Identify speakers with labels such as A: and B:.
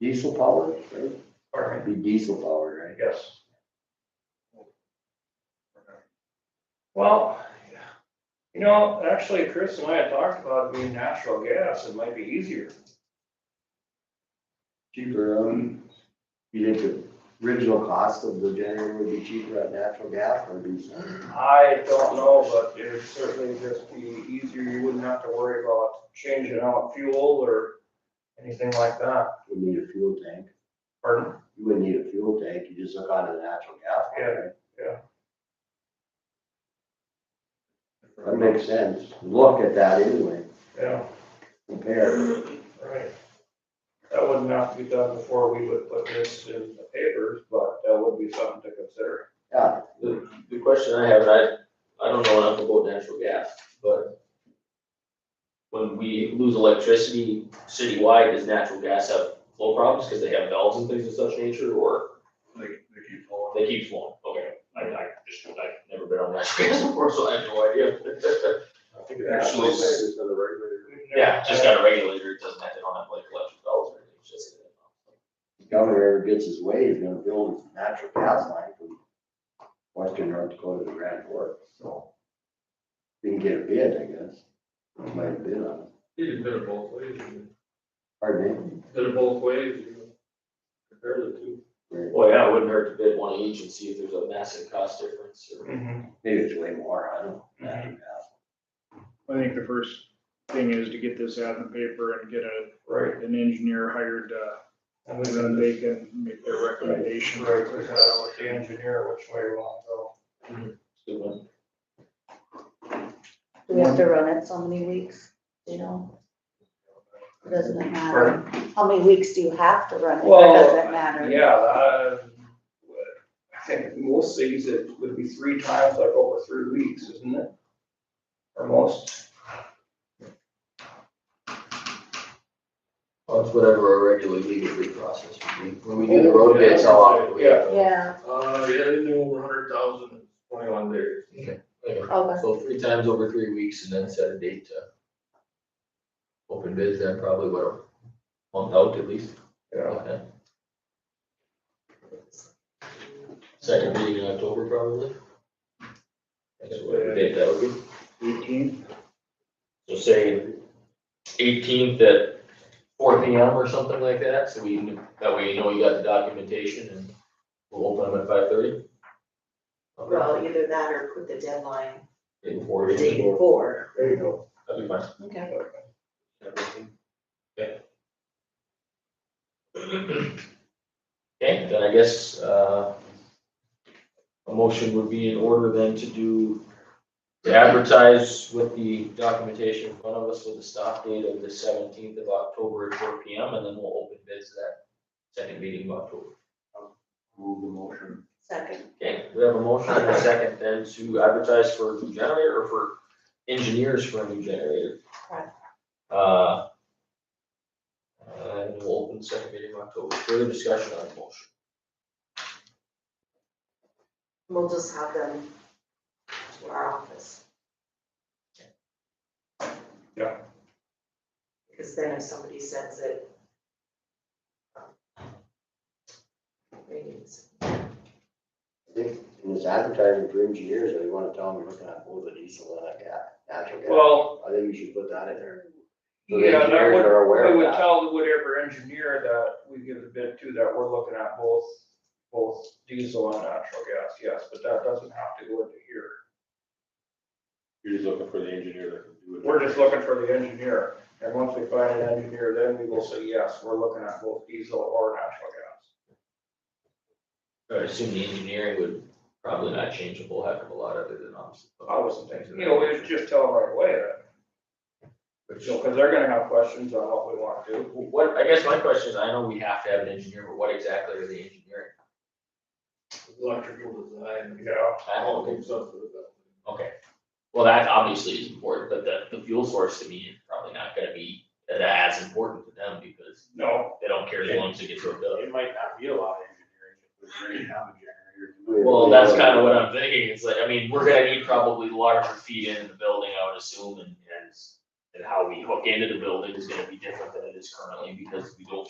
A: diesel powered, right?
B: Pardon
A: It'd Be diesel powered,
B: me,
A: right?
B: yes. Well, you know, actually, Chris and I had talked about being natural gas, it might be easier.
A: Cheaper, um, you think the original cost of the generator would be cheaper on natural gas or diesel?
B: I don't know, but it would certainly just be easier, you wouldn't have to worry about changing out fuel or anything like that.
A: You need a fuel tank.
B: Pardon?
A: You wouldn't need a fuel tank, you just look onto the natural gas. one,
B: Yeah,
A: right?
B: yeah.
A: That makes sense. Look at that anyway,
B: Yeah,
A: compare.
B: right. That wouldn't have to be done before we would put this in the papers, but that would be something to consider.
A: Yeah,
C: The question I have, and I, I don't know enough about natural gas, but when we lose electricity citywide, does natural gas have flow problems because they have valves and things of such nature, or
D: They, they keep falling.
C: they keep flowing? Okay, I, I just, I've never been on natural gas before, so I have no idea.
D: I think it actually. is another regulator.
C: Yeah, just got a regulator, it doesn't have, they don't have like electric valves or anything, it's just.
A: if the governor ever gets his way, he's gonna build a natural gas line from western North Dakota to Grand Forks, so. If You can get a bid, I guess. Might bid on it.
E: You can bid it both ways, you
A: Pardon me?
E: can bid it both ways, you can compare the two.
A: Or
C: Well, yeah, it wouldn't hurt to bid one each and see if there's a massive cost difference or.
B: Mhm.
A: Maybe it's way more, I don't know.
B: Mm-hmm.
A: Natural gas.
F: I think the first thing is to get this out in the paper and get a,
B: Right.
F: an engineer hired, uh,
B: And
F: and
B: we
F: then they can make their recommendation.
B: Right, we gotta go with the engineer, which way we want to go.
C: Good one.
G: Do we have to run it so many weeks, you know? Doesn't it matter? How many weeks do you have to run it, or
B: Well,
G: does it matter?
B: Yeah, uh, I think most cities it would be three times like over three weeks, isn't it? Or most,
C: Well, it's whatever a regular legal bid process would be. When we
E: do the road bids, how often do we have
G: Yeah,
E: Uh, yeah, they do over a hundred thousand in twenty-one days.
G: okay,
C: So three times over three weeks and then set a date to open bids, then probably what, a month out at least?
B: yeah.
C: Second meeting in October probably? That's what date that would be.
F: Eighteen,
C: So say eighteenth at four P M or something like that, so we, kn- that way you know you got the documentation and we'll open them at five thirty.
H: Well, either that or put the deadline
C: In four
H: the day
C: days,
H: before.
B: There you go.
C: that'd be fine.
G: okay.
C: Okay, then I guess, uh, a motion would be in order then to do, to advertise with the documentation in front of us with the stop date of the seventeenth of October at four P M, and then we'll open bids that second meeting of October.
A: Move the motion.
G: Second,
C: Okay, we have a motion and a second then to advertise for a new generator or for engineers for a new generator.
G: Right.
C: Uh. And we'll open the second meeting in October, further discussion on the motion.
H: We'll just have them to our office.
B: Yeah.
H: Because then if somebody um, sends it. Meetings.
A: I think in this advertising for engineers, if you wanna tell them you're looking at both the diesel and a gas, natural gas.
B: Well,
A: I think you should put that in there. So the
B: yeah, that
A: engineers
B: would,
A: are aware
B: we
A: of
B: would
A: that.
B: tell whatever engineer that we give a bid to that we're looking at both, both diesel and natural gas, yes, but that doesn't have to go into here.
D: You're just looking for the engineer that can do it.
B: We're just looking for the engineer, and once we find an engineer, then we will say, yes, we're looking at both diesel or natural gas.
C: I assume the engineering would probably not change a whole heck of a lot other than obviously.
B: I wasn't thinking, you know, we should just tell them right away that,
C: Which-
B: you know, because they're gonna have questions on what we want to do.
C: What, I guess my question is, I know we have to have an engineer, but what exactly are the engineering?
E: Electrical design.
B: Yeah.
C: I don't think-
E: Stuff like that.
C: Okay, well, that obviously is important, but the, the fuel source to me is probably not gonna be as important to them because
B: No,
C: they don't care as long as it gets hooked up.
D: It might not be a lot of engineering, but we already have a generator.
C: Well, that's kind of what I'm thinking, it's like, I mean, we're gonna need probably larger feet into the building, I would assume, and, and and how we hook into the building is gonna be different than it is currently because we don't